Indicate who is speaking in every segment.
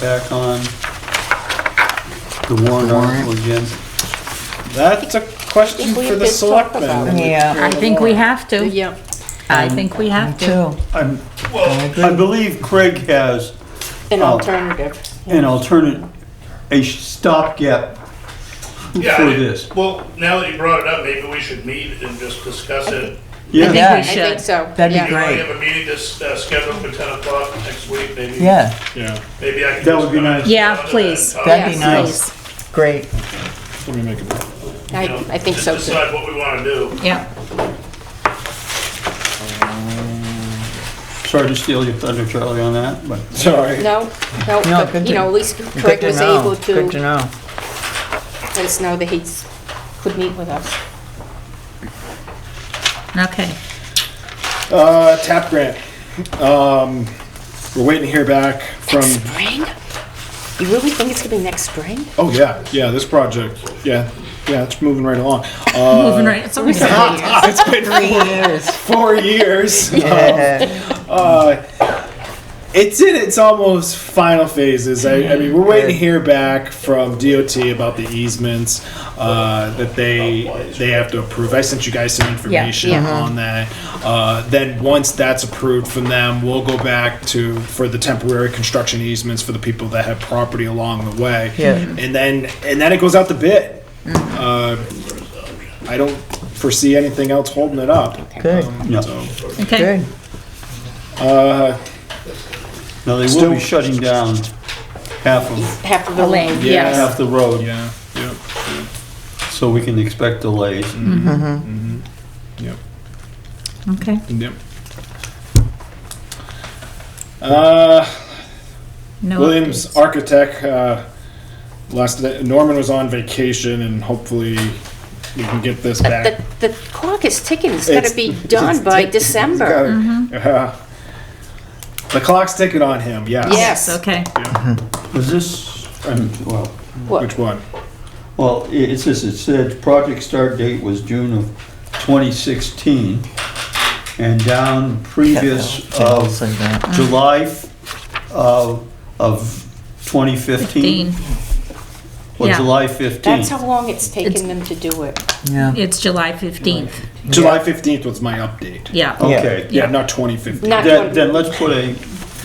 Speaker 1: back on the warrant
Speaker 2: The warrant.
Speaker 1: article again. That's a question
Speaker 3: Think we
Speaker 1: for the
Speaker 3: did talk
Speaker 1: selectmen.
Speaker 3: about
Speaker 1: and
Speaker 2: it. Yeah.
Speaker 1: the
Speaker 4: I think we
Speaker 1: warrant.
Speaker 4: have to.
Speaker 3: Yeah,
Speaker 4: I think we have to.
Speaker 2: Too. Oh,
Speaker 1: I'm-
Speaker 2: I
Speaker 1: Well,
Speaker 2: agree.
Speaker 1: I believe Craig has
Speaker 3: an
Speaker 1: Oh.
Speaker 3: alternative.
Speaker 1: an alternate, a stopgap for
Speaker 5: Yeah, I mean,
Speaker 1: this.
Speaker 5: Well, now that you brought it up, maybe we should meet and just discuss it.
Speaker 4: I
Speaker 1: Yeah,
Speaker 4: think we
Speaker 3: I think
Speaker 4: should.
Speaker 3: so.
Speaker 2: That'd be
Speaker 3: yeah.
Speaker 5: You know, we
Speaker 2: Great.
Speaker 5: have a meeting that's uh, scheduled for ten o'clock next week, maybe.
Speaker 2: Yeah,
Speaker 6: Yeah,
Speaker 5: Maybe I can.
Speaker 1: That would be
Speaker 5: just
Speaker 1: nice.
Speaker 4: Yeah,
Speaker 5: come to
Speaker 4: please.
Speaker 5: and talk,
Speaker 2: that'd be
Speaker 3: Yeah,
Speaker 2: nice. Great.
Speaker 6: let me make it.
Speaker 5: you
Speaker 3: I,
Speaker 5: know,
Speaker 3: I think
Speaker 5: just
Speaker 3: so too.
Speaker 5: Decide what we want to do.
Speaker 4: Yeah.
Speaker 1: sorry to steal your thunder, Charlie, on that, but
Speaker 6: Sorry.
Speaker 3: No, no,
Speaker 2: No,
Speaker 3: but,
Speaker 2: good
Speaker 3: you
Speaker 2: to-
Speaker 3: know, at least
Speaker 2: Good
Speaker 3: Craig
Speaker 2: to
Speaker 3: was
Speaker 2: know.
Speaker 3: able to
Speaker 2: Good to know.
Speaker 3: let us know that he's, could meet with us.
Speaker 2: Mm-hmm.
Speaker 4: Okay.
Speaker 6: Uh, tap grant. Um, we're waiting to hear back from,
Speaker 3: Spring? You really think it's gonna be next spring?
Speaker 6: oh yeah, yeah, this project. Yeah, yeah, it's moving right along. Uh,
Speaker 4: Moving right, it's almost three years.
Speaker 2: It's been three years.
Speaker 6: Four years.
Speaker 2: Yeah.
Speaker 6: Uh, it's in its almost final phases. I, I mean, we're waiting to hear back from DOT about the easements uh, that they they have to approve. I sent you guys some information on that. Uh, then once that's approved from them, we'll go back to for the temporary construction easements for the people that have property along the way.
Speaker 2: Yeah.
Speaker 6: and then and then it goes out to bid. Uh, I don't foresee anything else holding it up.
Speaker 2: Good,
Speaker 1: no.
Speaker 6: So,
Speaker 4: Okay.
Speaker 2: good.
Speaker 6: uh,
Speaker 1: Now, they will
Speaker 6: Still-
Speaker 1: be shutting down half of,
Speaker 3: Half of the
Speaker 4: lane,
Speaker 3: lane,
Speaker 6: Yeah.
Speaker 3: yes.
Speaker 1: half the road,
Speaker 6: yeah, yeah.
Speaker 1: so we can expect delays.
Speaker 6: Yep.
Speaker 4: Okay.
Speaker 6: Yep. Uh,
Speaker 4: No
Speaker 6: Williams
Speaker 4: updates.
Speaker 6: Architect, uh, last, Norman was on vacation and hopefully we can get this
Speaker 3: The,
Speaker 6: back.
Speaker 3: the clock is ticking, it's gotta
Speaker 6: It's-
Speaker 3: be done by December.
Speaker 6: Uh, The clock's ticking on him, yes.
Speaker 3: Yeah.
Speaker 4: Yes, okay.
Speaker 1: Was this, um, well,
Speaker 6: Which one?
Speaker 1: well, i- it says, it said project start date was June of 2016, and down previous
Speaker 2: I'll
Speaker 1: of
Speaker 2: say that. Mm.
Speaker 1: July f- of, of 2015.
Speaker 4: Fifteen.
Speaker 1: Or
Speaker 4: Yeah.
Speaker 1: July 15th.
Speaker 3: That's how long it's
Speaker 4: It's-
Speaker 3: taken them to do it.
Speaker 2: Yeah,
Speaker 4: It's July 15th.
Speaker 6: July fifteenth was my update.
Speaker 4: Yeah.
Speaker 1: Okay,
Speaker 6: Yeah, not twenty fifteen,
Speaker 3: Not
Speaker 1: then, then
Speaker 3: twenty,
Speaker 1: let's put a,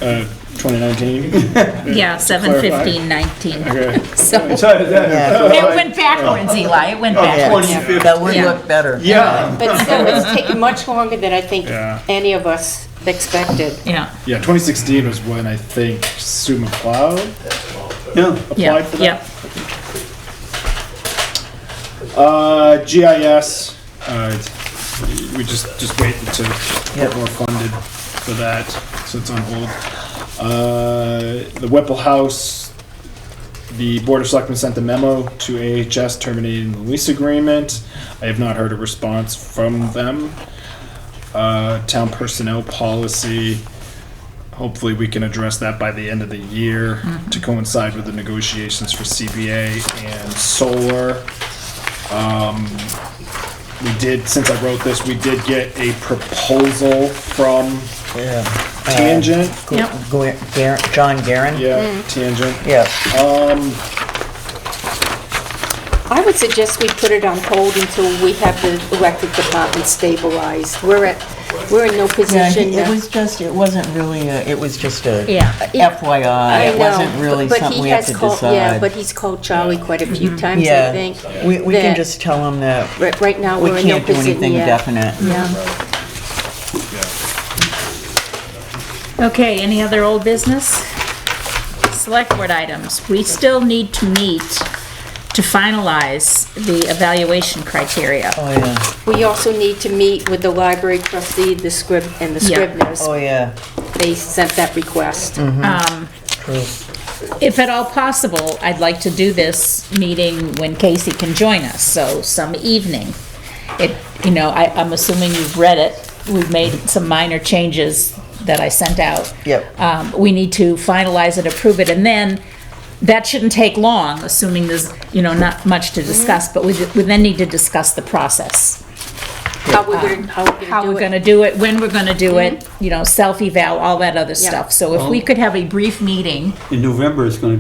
Speaker 6: uh, twenty nineteen,
Speaker 4: Yeah, 7, 15, 19.
Speaker 6: okay. Oh.
Speaker 4: So
Speaker 1: it's either that
Speaker 4: it went backwards, Eli. It went
Speaker 1: or
Speaker 4: backwards.
Speaker 1: 2015.
Speaker 2: that would
Speaker 4: Yeah.
Speaker 2: look better.
Speaker 1: Yeah,
Speaker 3: but still, it's taken much longer than I think
Speaker 6: Yeah.
Speaker 3: any of us expected.
Speaker 4: Yeah.
Speaker 6: Yeah, twenty sixteen was when I think Sue McLeod
Speaker 1: yeah.
Speaker 6: applied
Speaker 4: Yeah.
Speaker 6: for that.
Speaker 4: Yeah.
Speaker 6: Uh, GIS, uh, we just, just waiting to get
Speaker 2: Yep.
Speaker 6: more funded for that, so it's on hold. Uh, the Whipple House, the Board of Selectmen sent the memo to AHS terminating the lease agreement. I have not heard a response from them. Uh, town personnel policy, hopefully we can address that by the end of the year to coincide with the negotiations for CBA and solar. We did, since I wrote this, we did get a proposal from
Speaker 2: Yeah.
Speaker 6: Tangent.
Speaker 2: Oh.
Speaker 4: Yeah.
Speaker 2: Gu- Gar- John Garen?
Speaker 6: Yeah, Tangent.
Speaker 2: Yeah,
Speaker 3: I would suggest we put it on hold until we have the electric department stabilized. We're at, we're in no
Speaker 2: yeah,
Speaker 3: position.
Speaker 2: he- it was just, it wasn't really, a- it was just a
Speaker 4: Yeah.
Speaker 3: I
Speaker 2: FYI. It
Speaker 3: know,
Speaker 2: wasn't
Speaker 3: but-
Speaker 2: really
Speaker 3: but he
Speaker 2: something we have
Speaker 3: has
Speaker 2: to
Speaker 3: called- Yeah, but
Speaker 2: decide. Mm-hmm.
Speaker 3: he's called Charlie quite a few times, I
Speaker 2: Yeah,
Speaker 3: think.
Speaker 2: we, we can
Speaker 3: that-
Speaker 2: just tell him that
Speaker 3: Right, right now,
Speaker 2: we
Speaker 3: we're in no
Speaker 2: can't do
Speaker 3: position
Speaker 2: anything
Speaker 3: yet.
Speaker 2: definite.
Speaker 3: Yeah.
Speaker 4: Okay, any other old business? Select board items. We still need to meet to finalize the evaluation criteria.
Speaker 2: Oh, yeah,
Speaker 3: We also need to meet with the library trustee, the scrib, and the
Speaker 4: Yeah.
Speaker 3: scriveners.
Speaker 2: oh, yeah,
Speaker 3: They sent that request.
Speaker 2: Mm-hmm. true.
Speaker 4: If at all possible, I'd like to do this meeting when Casey can join us, so some evening. It, you know, I, I'm assuming you've read it. We've made some minor changes that I sent out.
Speaker 2: Yep.
Speaker 4: Um, we need to finalize it, approve it, and then that shouldn't take long, assuming there's, you know, not much to discuss, but we, we then need to discuss the process.
Speaker 3: how we're gonna, how we're
Speaker 4: how
Speaker 3: gonna do it.
Speaker 4: we're
Speaker 3: Mm-hmm.
Speaker 4: gonna do it, when we're gonna do it, you know, self-eval, all that other
Speaker 3: Yeah.
Speaker 4: stuff. So if we could have a brief meeting
Speaker 1: In November, it's gonna